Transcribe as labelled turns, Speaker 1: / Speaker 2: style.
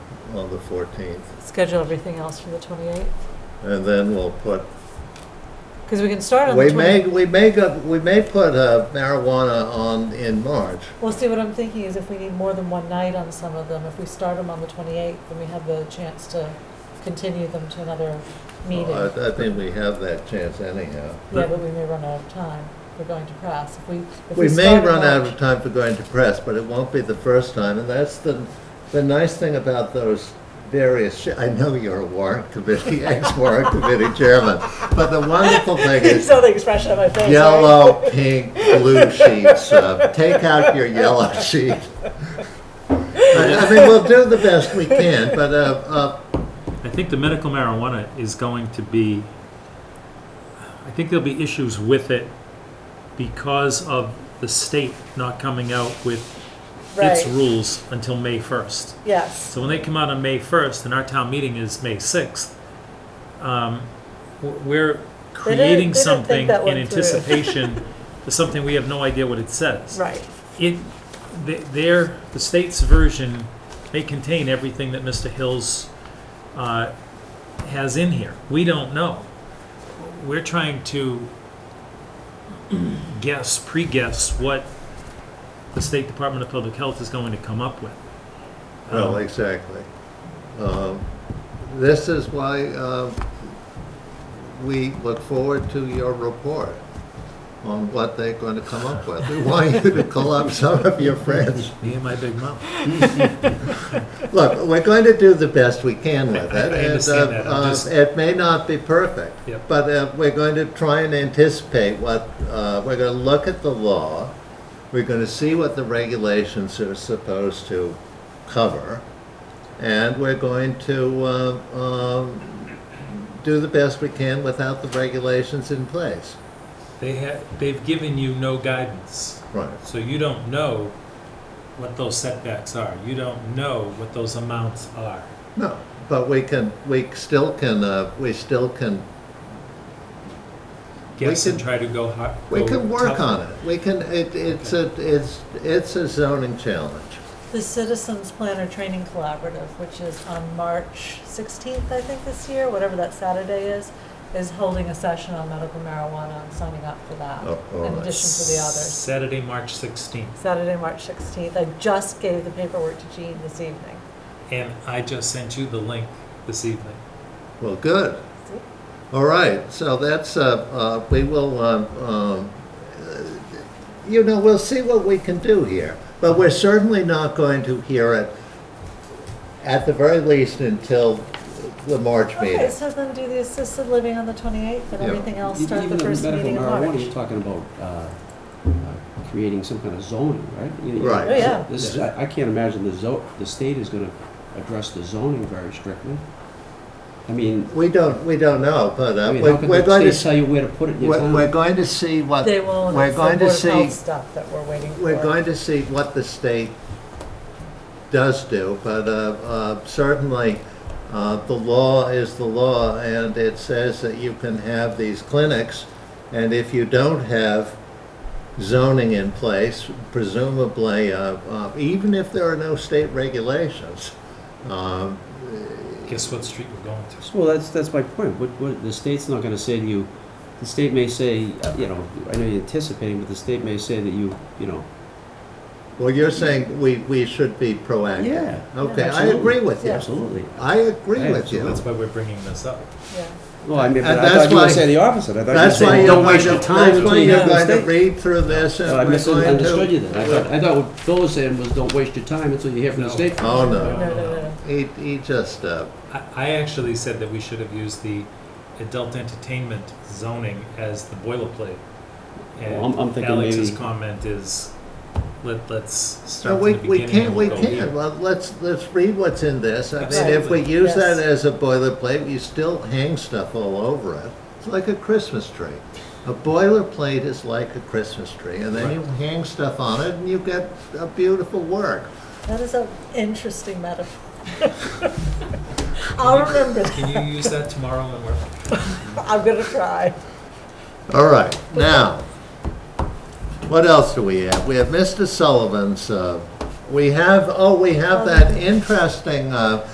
Speaker 1: on the 14th.
Speaker 2: schedule everything else for the 28th?
Speaker 1: And then we'll put,
Speaker 2: Because we can start on the
Speaker 1: we
Speaker 2: 28th.
Speaker 1: may, we may go, we may put uh, marijuana on in March.
Speaker 2: Well, see, what I'm thinking is if we need more than one night on some of them, if we start them on the 28th, then we have the chance to continue them to another meeting.
Speaker 1: I I think we have that chance anyhow.
Speaker 2: Yeah, but we may run out of time if we're going to press. If we, if we
Speaker 1: We may
Speaker 2: start in
Speaker 1: run out
Speaker 2: March-
Speaker 1: of time for going to press, but it won't be the first time, and that's the, the nice thing about those various, sh- I know you're a warrant committee, ex-warrant committee chairman, but the wonderful thing
Speaker 2: You
Speaker 1: is
Speaker 2: saw the expression on my face. right?
Speaker 1: yellow, pink, blue sheets. Uh, take out your yellow sheet. I, I mean, we'll do the best we can, but uh, uh,
Speaker 3: I think the medical marijuana is going to be, I think there'll be issues with it because of the state not coming out with its
Speaker 2: Right,
Speaker 3: rules until May 1st.
Speaker 2: yes.
Speaker 3: So when they come out on May 1st, and our town meeting is May 6th, um, w- we're
Speaker 2: They didn't-
Speaker 3: creating
Speaker 2: they didn't think
Speaker 3: something
Speaker 2: that
Speaker 3: in
Speaker 2: one through.
Speaker 3: anticipation for something we have no idea what it says
Speaker 2: Right,
Speaker 3: it, th- their, the state's version may contain everything that Mr. Hills uh, has in here. We don't know. We're trying to guess, pre-guess what the State Department of Public Health is going to come up with.
Speaker 1: well,
Speaker 3: Um,
Speaker 1: exactly. Um, this is why uh, we look forward to your report on what they're going to come up with. We want you to call up some of your friends.
Speaker 3: Me and my big mouth.
Speaker 1: Look, we're going to do the best we can with it.
Speaker 3: I- I
Speaker 1: and,
Speaker 3: understand
Speaker 1: uh,
Speaker 3: that. I'm
Speaker 1: uh,
Speaker 3: just-
Speaker 1: It may not be perfect.
Speaker 3: Yep.
Speaker 1: But uh, we're going to try and anticipate what, uh, we're going to look at the law. We're going to see what the regulations are supposed to cover. And we're going to uh, um, do the best we can without the regulations in place.
Speaker 3: They have, they've given you no guidance,
Speaker 1: Right.
Speaker 3: so you don't know what those setbacks are. You don't know what those amounts are.
Speaker 1: No, but we can, we still can, uh, we still can
Speaker 3: Guess
Speaker 1: We
Speaker 3: and
Speaker 1: could-
Speaker 3: try to go hard.
Speaker 1: We can work on it. We can, it, it's a, it's, it's a zoning challenge.
Speaker 2: the Citizens Planner Training Collaborative, which is on March 16th, I think, this year, whatever that Saturday is, is holding a session on medical marijuana and signing up for that,
Speaker 1: Oh, all
Speaker 2: in
Speaker 1: right.
Speaker 2: addition to the others.
Speaker 3: Saturday, March 16th.
Speaker 2: Saturday, March 16th. I just gave the paperwork to Jean this evening.
Speaker 3: And I just sent you the link this evening.
Speaker 1: Well, good. All right, so that's, uh, uh, we will, um, um, uh, you know, we'll see what we can do here. But we're certainly not going to hear it, at the very least, until the March
Speaker 2: Okay,
Speaker 1: meeting.
Speaker 2: so then do the assisted living on the 28th and
Speaker 1: Yeah.
Speaker 2: everything else
Speaker 4: Even
Speaker 2: start the
Speaker 4: in
Speaker 2: first
Speaker 4: medical
Speaker 2: meeting in
Speaker 4: marijuana, You're
Speaker 2: March.
Speaker 4: talking about uh, uh, creating some kind of zoning, right? You- you-
Speaker 1: Right.
Speaker 2: Oh, yeah.
Speaker 4: This is, I I can't imagine the zo, the state is gonna address the zoning very strictly. I mean,
Speaker 1: We don't, we don't know, but
Speaker 4: I
Speaker 1: uh,
Speaker 4: mean,
Speaker 1: we're
Speaker 4: how could
Speaker 1: we're
Speaker 4: the
Speaker 1: going
Speaker 4: state
Speaker 1: to,
Speaker 4: tell you where to put it in your
Speaker 1: we're we're
Speaker 4: town?
Speaker 1: going to see what,
Speaker 2: They won't,
Speaker 1: Uh, we're
Speaker 2: it's the
Speaker 1: going
Speaker 2: Board
Speaker 1: to
Speaker 2: of
Speaker 1: see.
Speaker 2: Health stuff that we're waiting for.
Speaker 1: We're going to see what the state does do, but uh, uh, certainly, uh, the law is the law, and it says that you can have these clinics, and if you don't have zoning in place, presumably, uh, uh, even if there are no state regulations, um,
Speaker 3: Guess what street we're going to?
Speaker 4: Well, that's, that's my point. What, what, the state's not gonna say to you, the state may say, uh, you know, I know you're anticipating, but the state may say that you, you know,
Speaker 1: well, you're saying we, we should be proactive.
Speaker 4: Yeah,
Speaker 1: Okay, I
Speaker 4: absolutely.
Speaker 1: agree with you.
Speaker 4: absolutely.
Speaker 1: I agree with
Speaker 3: So
Speaker 1: you.
Speaker 3: that's why we're bringing this up.
Speaker 2: Yeah.
Speaker 4: Well, I mean,
Speaker 1: And
Speaker 4: but I
Speaker 1: that's
Speaker 4: thought you
Speaker 1: why-
Speaker 4: were saying the opposite. I thought you were
Speaker 1: That's why
Speaker 4: saying,
Speaker 1: you're
Speaker 4: don't
Speaker 1: going
Speaker 4: waste
Speaker 1: to,
Speaker 4: your time
Speaker 1: that's
Speaker 4: until
Speaker 1: why
Speaker 4: you
Speaker 1: you're
Speaker 4: have the
Speaker 1: going to
Speaker 4: state.
Speaker 1: read through this and
Speaker 4: Well,
Speaker 1: we're
Speaker 4: I
Speaker 1: going
Speaker 4: misunderstood you then. I thought,
Speaker 1: to.
Speaker 4: I thought what Phil was saying was, don't waste your time until you hear from the
Speaker 3: No.
Speaker 4: state.
Speaker 1: Oh,
Speaker 2: No,
Speaker 1: no.
Speaker 2: no, no,
Speaker 1: He, he just, uh,
Speaker 3: I, I actually said that we should have used the adult entertainment zoning as the boilerplate.
Speaker 4: Well, I'm- I'm
Speaker 3: And
Speaker 4: thinking
Speaker 3: Alex's
Speaker 4: maybe-
Speaker 3: comment is, let, let's
Speaker 1: no,
Speaker 3: start
Speaker 1: we,
Speaker 3: from the
Speaker 1: we
Speaker 3: beginning.
Speaker 1: can't,
Speaker 3: and
Speaker 1: we
Speaker 3: go
Speaker 1: can't.
Speaker 3: here.
Speaker 1: Well, let's, let's read what's in this. I mean, if we
Speaker 3: Absolutely.
Speaker 1: use that
Speaker 2: Yes.
Speaker 1: as a boilerplate, you still hang stuff all over it. It's like a Christmas tree. A boilerplate is like a Christmas tree, and then
Speaker 3: Right.
Speaker 1: you hang stuff on it and you get a beautiful work.
Speaker 2: That is an interesting metaphor. I'll remember that.
Speaker 3: Can you use that tomorrow when we're,
Speaker 2: I'm going to try.
Speaker 1: All right, now, what else do we have? We have Mr. Sullivan's, uh, we have, oh, we have that interesting, uh,